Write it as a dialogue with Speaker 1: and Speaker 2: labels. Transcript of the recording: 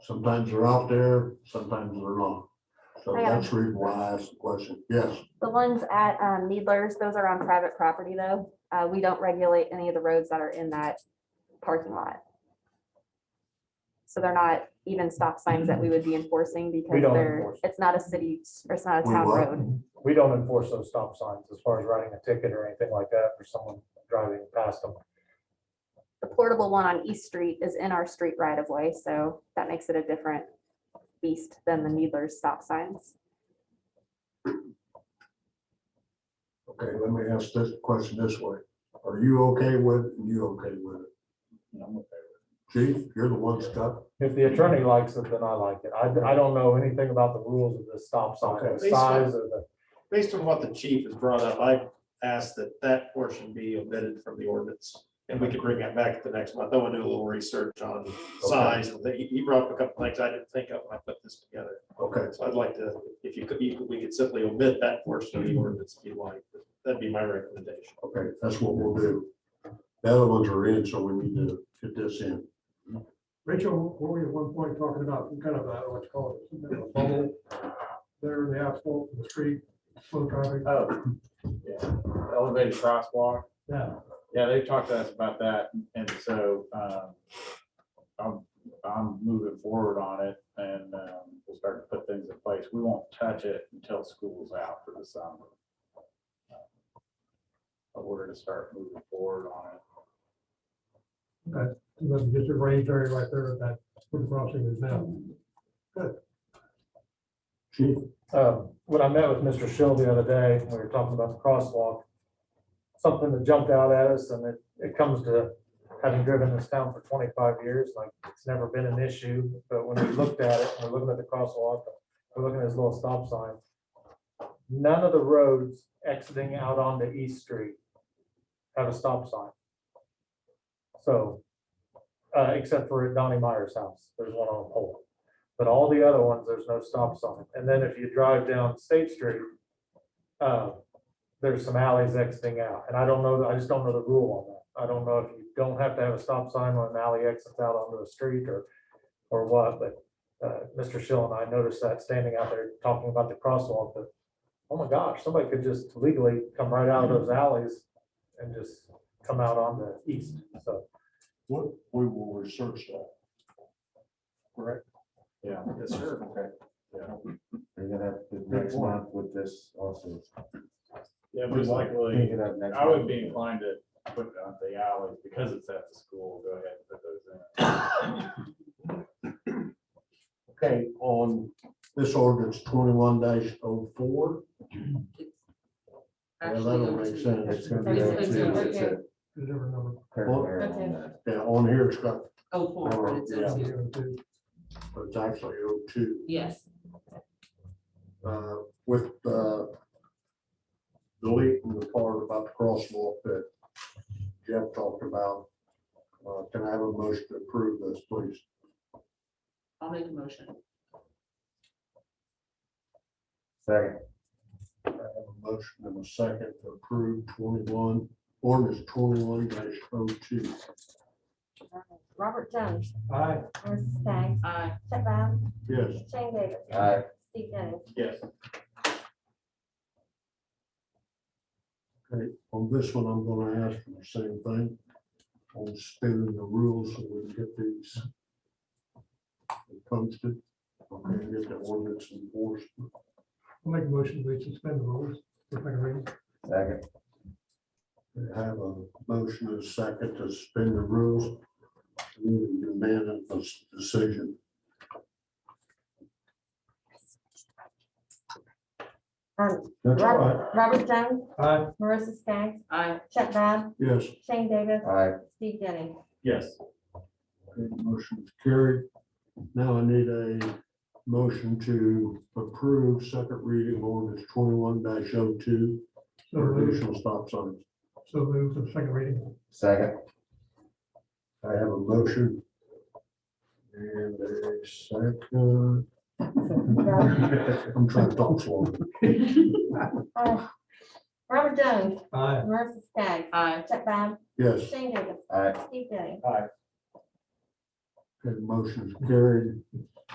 Speaker 1: Sometimes they're out there, sometimes they're not. So
Speaker 2: I got
Speaker 1: that's the reason why I asked the question. Yes,
Speaker 2: The ones at um, Needlers, those are on private property though. Uh, We don't regulate any of the roads that are in that parking lot. So they're not even stop signs that we would be enforcing because
Speaker 3: don't
Speaker 2: they're,
Speaker 3: enforce.
Speaker 2: it's not a city, or it's not a
Speaker 1: We
Speaker 2: town
Speaker 1: what?
Speaker 2: road.
Speaker 3: We don't enforce those stop signs as far as writing a ticket or anything like that for someone driving past them.
Speaker 2: The portable one on East Street is in our street right of way, so that makes it a different beast than the Needlers stop signs.
Speaker 1: okay, let me ask this question this way. Are you okay with, it? you okay with it? I'm okay with it. Chief, you're the one that's got,
Speaker 3: If the attorney likes it, then I like it. I, I don't know anything about the rules of this stop sign,
Speaker 1: Okay.
Speaker 3: the size of the,
Speaker 4: Based on what the chief has brought up, I asked that that portion be omitted from the ordinance. And we could bring that back at the next month. I want to do a little research on size. and that- He he brought up a couple things I didn't think of when I put this together.
Speaker 1: okay,
Speaker 4: So I'd like to, if you could, you could- we could simply omit that portion of the ordinance if you like. That'd be my recommendation.
Speaker 1: okay, that's what we'll do. The other ones are in, so we need to get this in.
Speaker 5: Rachel, were we at one point talking about some kind of, I don't know what you call it, some kind of bubble there in the asphalt, in the street, slow traffic?
Speaker 6: Oh, yeah, elevated crosswalk.
Speaker 5: Yeah.
Speaker 6: Yeah, they talked to us about that, and so, um, I'm, I'm moving forward on it, and, um, we'll start to put things in place. We won't touch it until school's out for the summer. But we're gonna start moving forward on it.
Speaker 5: And then just a range area right there at that, where the crossing is now.
Speaker 1: Chief,
Speaker 3: um, when I met with Mr. Schill the other day, we were talking about the crosswalk. Something that jumped out at us and it, it comes to having driven this town for twenty-five years, like it's never been an issue. But when we looked at it, we're looking at the crosswalk, we're looking at this little stop sign. None of the roads exiting out onto East Street have a stop sign. So, uh, except for at Donnie Meyer's house, there's one on a pole. But all the other ones, there's no stop sign. And then if you drive down State Street, uh, there's some alleys exiting out. And I don't know, I just don't know the rule on that. I don't know if you don't have to have a stop sign when an alley exits out onto a street or, or what, but uh, Mr. Schill and I noticed that standing out there talking about the crosswalk, that, oh my gosh, somebody could just legally come right out of those alleys and just come out on the east, so.
Speaker 1: what, we will research that.
Speaker 6: Yeah.
Speaker 4: Yes, sir.
Speaker 7: Bring it up the next
Speaker 1: point.
Speaker 7: month with this also.
Speaker 6: Yeah, most
Speaker 7: Bring
Speaker 6: likely,
Speaker 7: it up next.
Speaker 6: I would
Speaker 7: month.
Speaker 6: be inclined to put it on the alleys, because it's at the school, go ahead and put those in.
Speaker 1: Okay, on this ordinance twenty-one oh 4 Yeah, that'll make sense.
Speaker 7: It's gonna be there too, that's it.
Speaker 5: There's every number.
Speaker 7: Clarify on that.
Speaker 1: Yeah, uh, on here it's got,
Speaker 8: Oh, four, but it's
Speaker 7: Yeah.
Speaker 8: a two,
Speaker 1: but it's actually O two.
Speaker 8: yes.
Speaker 1: uh, with uh, deleting the part about the crosswalk that Jeff talked about. Uh, Can I have a motion to approve this, please?
Speaker 8: I'll make a motion.
Speaker 7: Second,
Speaker 1: I have a motion and a second to approve twenty-one, ordinance twenty-one dash oh two.
Speaker 9: Robert Jones,
Speaker 5: Aye.
Speaker 9: Marissa Staggs,
Speaker 8: Aye.
Speaker 9: Chuck Brown,
Speaker 1: Yes,
Speaker 9: Shane Davis,
Speaker 7: aye,
Speaker 9: Steve Dennis.
Speaker 4: Yes.
Speaker 1: okay, on this one, I'm gonna ask for the same thing. On spinning the rules so we can get these posted. Okay, get that ordinance enforced.
Speaker 5: I'll make a motion to suspend the rules. for second reading.
Speaker 7: second,
Speaker 1: We Have a motion and a second to suspend the rules. Need a unanimous decision.
Speaker 9: Um,
Speaker 1: That's all right.
Speaker 9: Robert Robert Jones,
Speaker 5: Aye.
Speaker 9: Marissa Staggs,
Speaker 8: Aye.
Speaker 9: Chuck Brown,
Speaker 1: Yes,
Speaker 9: Shane Davis,
Speaker 7: aye,
Speaker 9: Steve Dennis.
Speaker 4: Yes.
Speaker 1: okay, motion is carried. Now I need a motion to approve second reading ordinance twenty-one 2 oh two,
Speaker 5: So moved,
Speaker 1: additional stop signs.
Speaker 5: so moved for the second reading.
Speaker 7: second,
Speaker 1: I have a motion. And a second. I'm trying to talk slow.
Speaker 9: Uh, Robert Jones,
Speaker 5: Aye.
Speaker 9: Marissa Staggs,
Speaker 8: Aye.
Speaker 9: Chuck Brown,
Speaker 1: Yes.
Speaker 9: Shane Davis,
Speaker 7: aye.
Speaker 9: Steve Dennis.
Speaker 1: Okay, motion's carried.